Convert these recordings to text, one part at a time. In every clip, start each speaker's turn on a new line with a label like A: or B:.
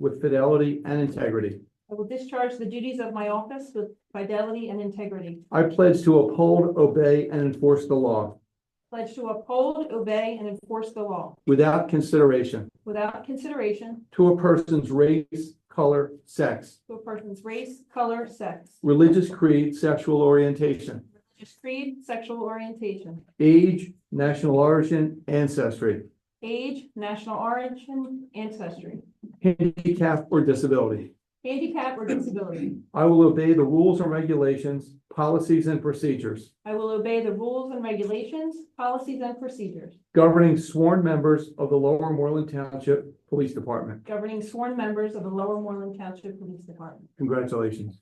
A: with fidelity and integrity.
B: I will discharge the duties of my office with fidelity and integrity.
A: I pledge to uphold, obey, and enforce the law
B: Pledge to uphold, obey, and enforce the law
A: without consideration
B: without consideration
A: to a person's race, color, sex,
B: to a person's race, color, sex,
A: religious creed, sexual orientation,
B: religious creed, sexual orientation,
A: age, national origin, ancestry,
B: age, national origin, ancestry,
A: handicap, or disability.
B: handicap, or disability.
A: I will obey the rules and regulations, policies, and procedures
B: I will obey the rules and regulations, policies, and procedures
A: governing sworn members of the Lower Moreland Township Police Department.
B: governing sworn members of the Lower Moreland Township Police Department.
A: Congratulations.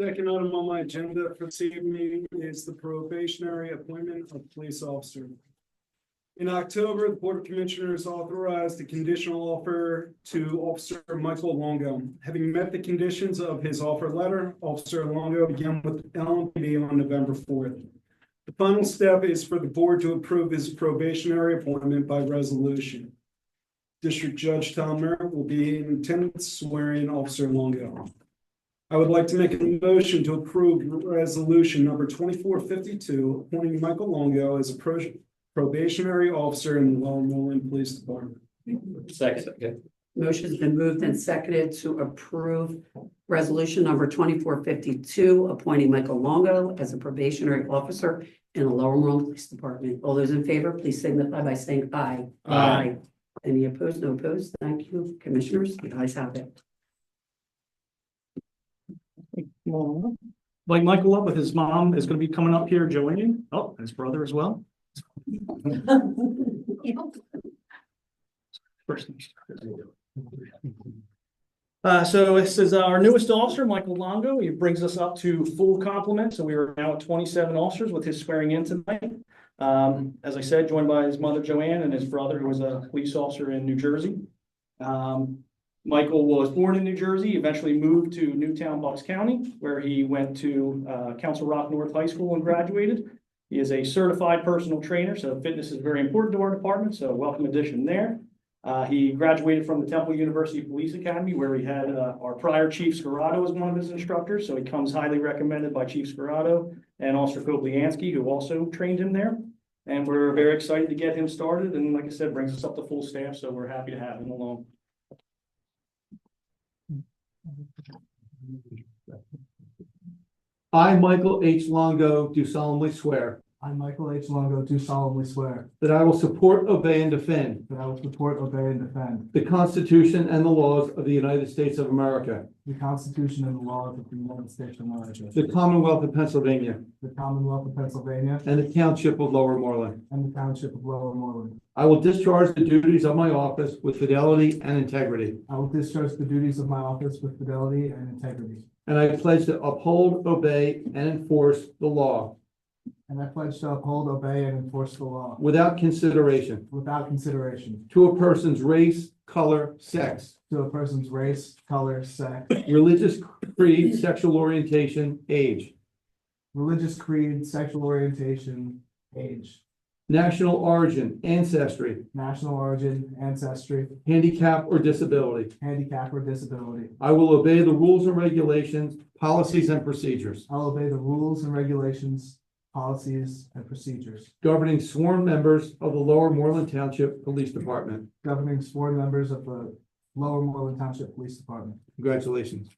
C: Second item on my agenda for this evening is the probationary appointment of police officer. In October, the Board of Commissioners authorized a conditional offer to Officer Michael Longo. Having met the conditions of his offer letter, Officer Longo began with LMPD on November fourth. The final step is for the board to approve his probationary appointment by resolution. District Judge Tom Merritt will be in attendance swearing Officer Longo. I would like to make a motion to approve resolution number twenty-four fifty-two, appointing Michael Longo as a pro- probationary officer in the Lower Moreland Police Department.
D: Second.
E: Motion's been moved and seconded to approve resolution number twenty-four fifty-two, appointing Michael Longo as a probationary officer in the Lower Moreland Police Department. All those in favor, please signify by saying aye.
D: Aye.
E: Any opposed? No opposed? Thank you, commissioners. The ayes have it.
F: like Michael up with his mom is gonna be coming up here joining. Oh, and his brother as well. First. Uh, so this is our newest officer, Michael Longo. He brings us up to full complement. So we are now at twenty-seven officers with his swearing in tonight. Um, as I said, joined by his mother Joanne and his brother, who was a police officer in New Jersey. Um, Michael was born in New Jersey, eventually moved to Newtown, Bucks County, where he went to uh, Council Rock North High School and graduated. He is a certified personal trainer, so fitness is very important to our department, so welcome addition there. Uh, He graduated from the Temple University Police Academy, where we had uh, our prior Chief Scarrato as one of his instructors, so he comes highly recommended by Chief Scarrato and Officer Kobliansky, who also trained him there. And we're very excited to get him started, and like I said, brings us up to full staff, so we're happy to have him along.
A: I, Michael H. Longo, do solemnly swear
G: I, Michael H. Longo, do solemnly swear
A: that I will support, obey, and defend
G: that I will support, obey, and defend
A: the Constitution and the laws of the United States of America,
G: the Constitution and the laws of the United States of America,
A: the Commonwealth of Pennsylvania,
G: the Commonwealth of Pennsylvania,
A: and the Township of Lower Moreland.
G: and the Township of Lower Moreland.
A: I will discharge the duties of my office with fidelity and integrity,
G: I will discharge the duties of my office with fidelity and integrity,
A: and I pledge to uphold, obey, and enforce the law
G: and I pledge to uphold, obey, and enforce the law
A: without consideration
G: without consideration
A: to a person's race, color, sex,
G: to a person's race, color, sex,
A: religious creed, sexual orientation, age,
G: religious creed, sexual orientation, age,
A: national origin, ancestry,
G: national origin, ancestry,
A: handicap, or disability.
G: handicap, or disability.
A: I will obey the rules and regulations, policies and procedures
G: I'll obey the rules and regulations, policies, and procedures
A: governing sworn members of the Lower Moreland Township Police Department.
G: governing sworn members of the Lower Moreland Township Police Department.
A: Congratulations.